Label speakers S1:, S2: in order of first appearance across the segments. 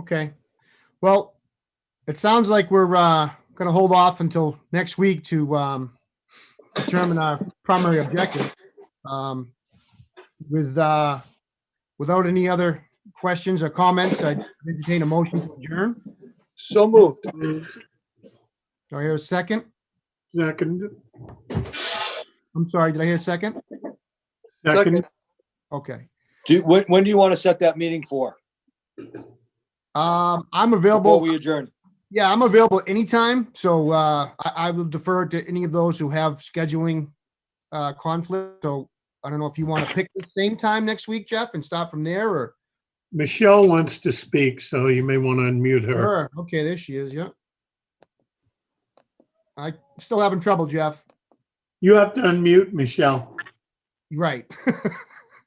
S1: Okay. Well, it sounds like we're uh, going to hold off until next week to um, determine our primary objective. Um, With, uh, without any other questions or comments, I entertain a motion to adjourn.
S2: So moved.
S1: Do I hear a second?
S3: Second,
S1: I'm sorry, did I hear a second?
S3: second,
S1: Okay.
S2: Do, when, when do you want to set that meeting for?
S1: Um, I'm
S2: Before
S1: available.
S2: we adjourn?
S1: Yeah, I'm available anytime, so uh, I, I will defer to any of those who have scheduling uh, conflict. So I don't know if you want to pick the same time next week, Jeff, and start from there, or
S3: Michelle wants to speak, so you may want to unmute her.
S1: her. Okay, there she is. Yeah. I still having trouble, Jeff.
S3: You have to unmute Michelle.
S1: You're Right.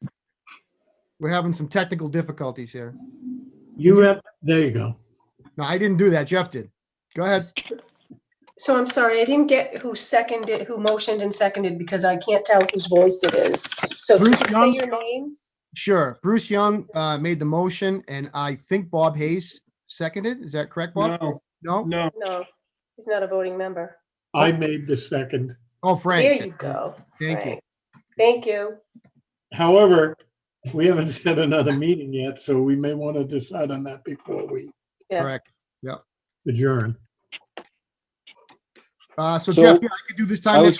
S1: We're having some technical difficulties here.
S3: You have, there you go.
S1: No, I didn't do that. Jeff did. Go ahead.
S4: So I'm sorry, I didn't get who seconded, who motioned and seconded because I can't tell whose voice it is. So
S1: Bruce
S4: say
S1: Young.
S4: your names.
S1: Sure. Bruce Young uh, made the motion, and I think Bob Hayes seconded. Is that correct, Bob?
S5: No,
S1: No?
S5: no.
S4: No, he's not a voting member.
S3: I made the second.
S1: Oh,
S4: There
S1: Frank.
S4: you go.
S1: Thank you.
S4: Frank. Thank you.
S3: However, we haven't set another meeting yet, so we may want to decide on that before we
S4: Yeah.
S1: Correct.
S3: adjourn.
S1: Uh, so
S2: So-
S1: Jeff, yeah, I could do this
S2: I
S1: time next
S2: was,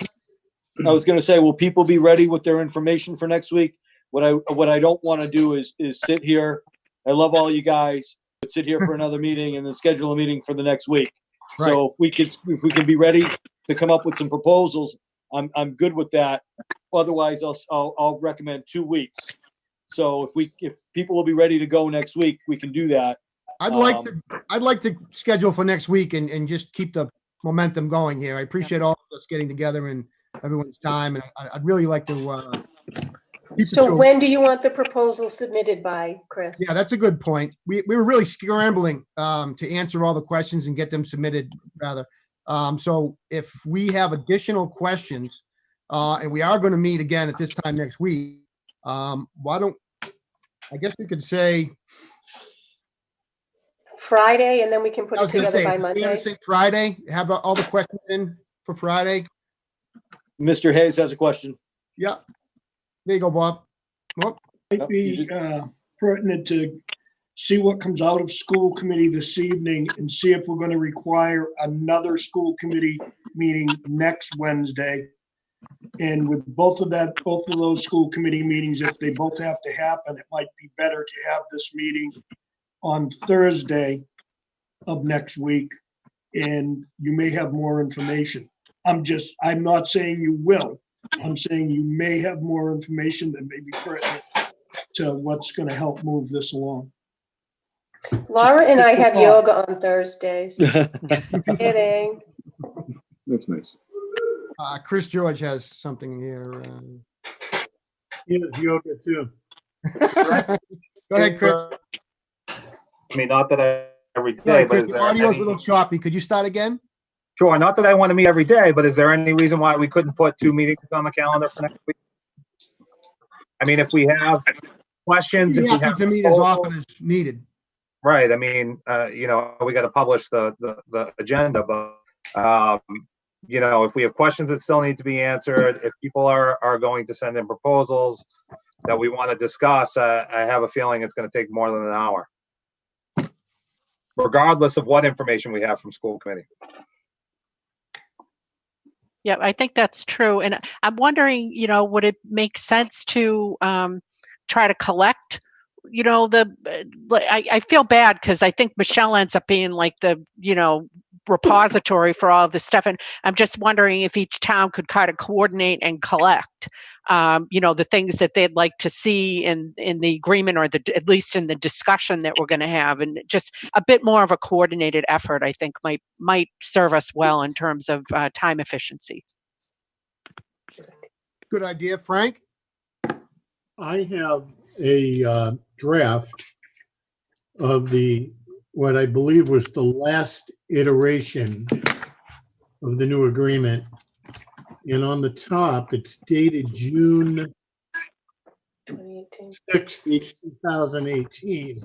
S1: week.
S2: I was gonna say, will people be ready with their information for next week? What I, what I don't want to do is, is sit here. I love all you guys, but sit here for another meeting and then schedule a meeting for the next week. So if we could, if we can be ready to come up with some proposals, I'm, I'm good with that. Otherwise, I'll, s- I'll, I'll recommend two weeks. So if we, if people will be ready to go next week, we can do that.
S1: I'd like
S2: um,
S1: to, I'd like to schedule for next week and, and just keep the momentum going here. I appreciate all of us getting together and everyone's time, and I, I'd really like to, uh, keep it to
S4: So
S1: a-
S4: when do you want the proposal submitted by, Chris?
S1: Yeah, that's a good point. We, we were really scrambling, um, to answer all the questions and get them submitted rather. Um, so if we have additional questions, uh, and we are going to meet again at this time next week, um, why don't, I guess we could say,
S4: Friday, and then we can put
S1: I
S4: it
S1: was gonna
S4: together
S1: say,
S4: by
S1: we
S4: Monday?
S1: gonna say Friday, have all the questions in for Friday.
S2: Mr. Hayes has a question.
S1: Yeah. There you go, Bob. Well,
S5: Might be uh, pertinent to see what comes out of school committee this evening and see if we're going to require another school committee meeting next Wednesday. And with both of that, both of those school committee meetings, if they both have to happen, it might be better to have this meeting on Thursday of next week. And you may have more information. I'm just, I'm not saying you will. I'm saying you may have more information that may be pertinent to what's going to help move this along.
S4: Laura and I have
S5: Just-
S4: yoga on Thursdays. Kidding.
S6: That's nice.
S1: uh, Chris George has something here. um.
S3: He has yoga too.
S1: uh. Go ahead, Chris.
S7: I mean, not that I every
S1: Yeah,
S7: day, but
S1: Chris,
S7: is
S1: the
S7: there
S1: audio's a
S7: any,
S1: little choppy. Could you start again?
S7: sure, not that I want to meet every day, but is there any reason why we couldn't put two meetings on the calendar for next week? I mean, if we have questions,
S1: You
S7: if we
S1: have
S7: have,
S1: to meet as often as needed.
S7: right, I mean, uh, you know, we got to publish the, the, the agenda, but, um, you know, if we have questions that still need to be answered, if people are, are going to send in proposals that we want to discuss, uh, I have a feeling it's going to take more than an hour. Regardless of what information we have from school committee.
S8: Yeah, I think that's true. And I'm wondering, you know, would it make sense to um, try to collect? You know, the uh, like, I, I feel bad because I think Michelle ends up being like the you know repository for all of this stuff, and I'm just wondering if each town could kind of coordinate and collect, um, you know, the things that they'd like to see in in the agreement or the at least in the discussion that we're going to have, and just a bit more of a coordinated effort. I think might might serve us well in terms of uh, time efficiency.
S1: Good idea, Frank.
S3: I have a uh, draft of the, what I believe was the last iteration of the new agreement. And on the top, it's dated June
S4: 2018.
S3: 6th, 2018.